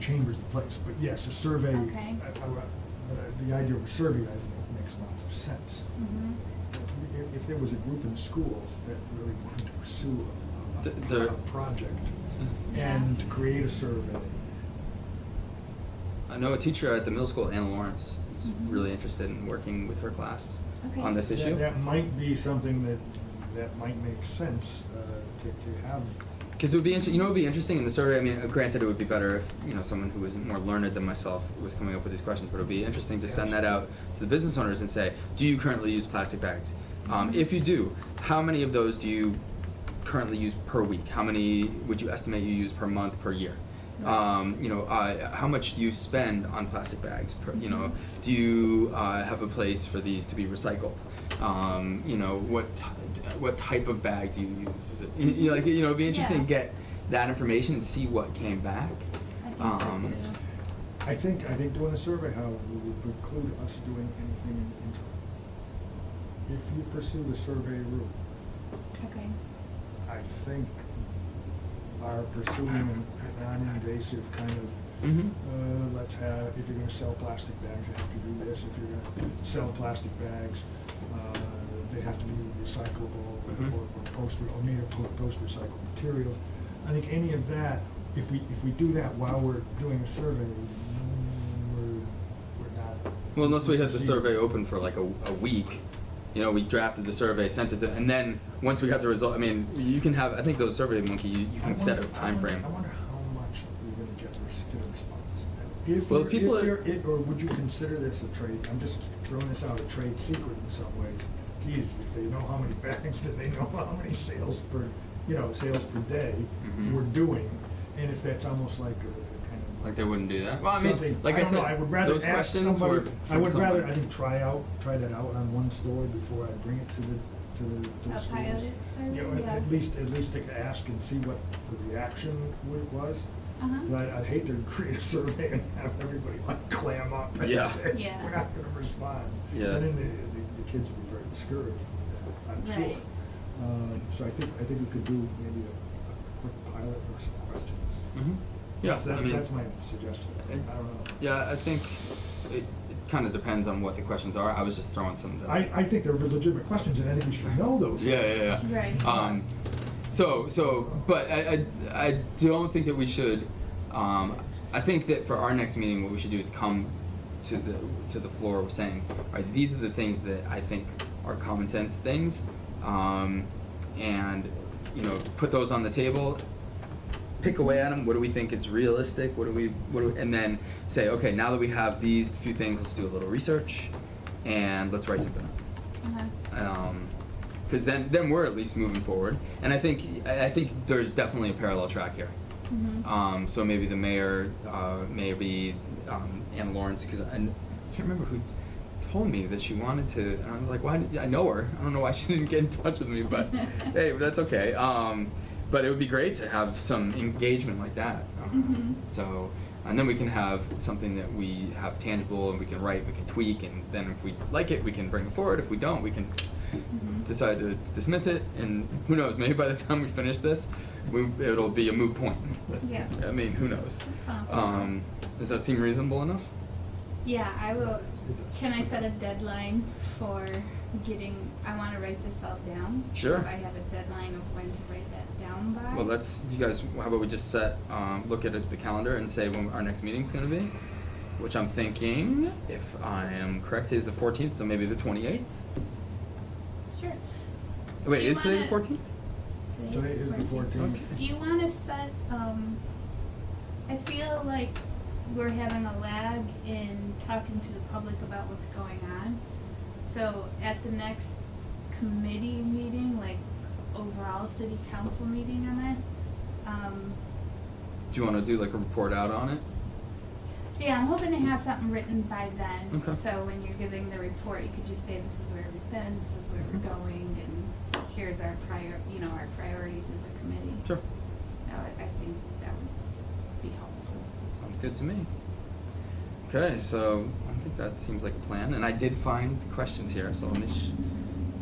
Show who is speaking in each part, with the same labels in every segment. Speaker 1: chamber's the place, but yes, a survey,
Speaker 2: Okay.
Speaker 1: I- I- I- the idea of a survey, I think, makes lots of sense.
Speaker 2: Mhm.
Speaker 1: If- If there was a group in schools that really wanted to pursue a-
Speaker 3: The-
Speaker 1: a,
Speaker 3: the-
Speaker 1: a project
Speaker 2: Yeah.
Speaker 1: and to create a survey,
Speaker 3: I know a teacher at the middle school, Anna Lawrence, is
Speaker 2: Mhm.
Speaker 3: really interested in working with her class
Speaker 2: Okay.
Speaker 3: on this
Speaker 1: that-
Speaker 3: issue.
Speaker 1: That might be something that, that might make sense uh, to, to have.
Speaker 3: Because it would be inter- you know, it would be interesting in the survey. I mean, uh, granted, it would be better if you know someone who was more learned than myself was coming up with these questions. But it would be interesting to send that out to the business owners and say, "Do you currently use plastic bags? Um, if you do, how many of those do you currently use per week? How many would you estimate you use per month, per year? Um, you know, uh, how much do you spend on plastic bags? Per, you know, do you uh, have a place for these to be recycled? Um, you know, what t- what type of bag do you use? Is it you, you like you know? It'd be interesting
Speaker 2: Yeah.
Speaker 3: to get that information and see what came back.
Speaker 2: I think so
Speaker 3: Um,
Speaker 2: too.
Speaker 1: I think, I think doing a survey, however, would preclude us doing anything in the interim. If you pursue the survey route,
Speaker 2: Okay.
Speaker 1: I think are pursuing an a non-invasive kind of,
Speaker 3: Mhm.
Speaker 1: uh, let's have, if you're gonna sell plastic bags, you have to do this, if you're gonna sell plastic bags, uh, they have to be recyclable
Speaker 3: Mhm.
Speaker 1: or, or post, or made of po- post-recycled materials. I think any of that, if we, if we do that while we're doing a survey, mm, we're, we're not.
Speaker 3: Well, unless we had the
Speaker 1: proceeding.
Speaker 3: survey open for like a, a week, you know, we drafted the survey, sent it, to, and then once we got the result, I mean, you can have. I think those survey monkey, you, you
Speaker 1: I
Speaker 3: can set a
Speaker 1: wonder- I
Speaker 3: time
Speaker 1: wonder-
Speaker 3: frame.
Speaker 1: I wonder how much we're gonna get res- get a response. If
Speaker 3: Well,
Speaker 1: you're-
Speaker 3: people
Speaker 1: if
Speaker 3: are-
Speaker 1: you're- it- Or would you consider this a trade, I'm just throwing this out, a trade secret in some ways. Geez, if they know how many bags, then they know how many sales per, you know, sales per day
Speaker 3: Mhm.
Speaker 1: we're doing. And if that's almost like a kind of.
Speaker 3: Like they wouldn't do that. Well, I mean,
Speaker 1: something-
Speaker 3: like I,
Speaker 1: don't
Speaker 3: said,
Speaker 1: know, I would rather
Speaker 3: those
Speaker 1: ask
Speaker 3: questions
Speaker 1: somebody-
Speaker 3: were.
Speaker 1: I
Speaker 3: from
Speaker 1: would rather,
Speaker 3: somebody.
Speaker 1: I think, try out, try that out on one store before I bring it to the, to the, to the
Speaker 2: A
Speaker 1: schools.
Speaker 2: pilot survey,
Speaker 1: You know, at-
Speaker 2: yeah.
Speaker 1: At least, at least to ask and see what the reaction wa- was.
Speaker 2: Uh-huh.
Speaker 1: But I- I'd hate to create a survey and have everybody like clam up and
Speaker 3: Yeah.
Speaker 1: say,
Speaker 2: Yeah.
Speaker 1: we're not gonna respond.
Speaker 3: Yeah.
Speaker 1: And then the, the, the kids would be very discouraged, with that, I'm sure.
Speaker 2: Right.
Speaker 1: Um, so I think, I think we could do maybe a, a quick pilot or some questions.
Speaker 3: Mhm. Yeah,
Speaker 1: That's-
Speaker 3: I
Speaker 1: That's,
Speaker 3: mean,
Speaker 1: that's my suggestion, I don't know.
Speaker 3: Yeah, I think it, it kind of depends on what the questions are. I was just throwing some.
Speaker 1: I, I think they're legitimate questions, and I think we should know those.
Speaker 3: Yeah, yeah,
Speaker 1: questions.
Speaker 3: yeah.
Speaker 2: Right.
Speaker 3: Um, so, so, but I, I, I don't think that we should. Um, I think that for our next meeting, what we should do is come to the to the floor with saying, all right, these are the things that I think are common sense things, um, and you know, put those on the table. Pick away at them. What do we think is realistic? What do we, what do, we, and then say, okay, now that we have these few things, let's do a little research, and let's write something up
Speaker 2: Uh-huh.
Speaker 3: because Um, then then we're at least moving forward. And I think I I think there's definitely a parallel track here.
Speaker 2: Mhm.
Speaker 3: Um, so maybe the mayor, uh, maybe um, Anna Lawrence, because I n- can't remember who told me that she wanted to, and I was like, why? Did, I know her. I don't know why she didn't get in touch with me, but hey, but that's okay. Um, but it would be great to have some engagement like that. Um,
Speaker 2: Mhm.
Speaker 3: So, and then we can have something that we have tangible and we can write, we can tweak, and then if we like it, we can bring it forward. If we don't, we can
Speaker 2: Mhm.
Speaker 3: decide to dismiss it, and who knows? Maybe by the time we finish this, we, it'll be a moot point.
Speaker 2: Yeah.
Speaker 3: I mean, who knows?
Speaker 2: Uh-huh.
Speaker 3: Um, does that seem reasonable enough?
Speaker 2: Yeah, I will, can I set a deadline for getting, I wanna write this all down.
Speaker 3: Sure.
Speaker 2: So I have a deadline of when to write that down by.
Speaker 3: Well, let's. You guys, how about we just set, um, look at it- the calendar and say when our next meeting's going to be, which I'm thinking, if I am correct, is the 14th, so maybe the 28th.
Speaker 2: Sure.
Speaker 3: Wait,
Speaker 2: Do you
Speaker 3: is today the
Speaker 2: wanna-
Speaker 3: 14th?
Speaker 1: Today is the fourteenth.
Speaker 3: Okay.
Speaker 2: Do you wanna set, um, I feel like we're having a lag in talking to the public about what's going on. So at the next committee meeting, like overall city council meeting on it, um,
Speaker 3: Do you want to do like a report out on it?
Speaker 2: yeah, I'm hoping to have something written by then.
Speaker 3: Okay.
Speaker 2: So when you're giving the report, you could just say, this is where we've been, this is where we're
Speaker 3: Mm-hmm.
Speaker 2: going, and here's our prior, you know, our priorities as a committee.
Speaker 3: Sure.
Speaker 2: That would, I think that would be helpful.
Speaker 3: Sounds good to me. Okay, so I think that seems like a plan, and I did find the questions here, so let me, sh-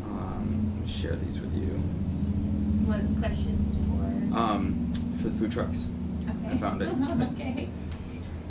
Speaker 3: um, let me share these with you.
Speaker 2: What questions for?
Speaker 3: Um, for the food trucks.
Speaker 2: Mm-hmm. Okay.
Speaker 3: Ah, I found it.
Speaker 2: Okay.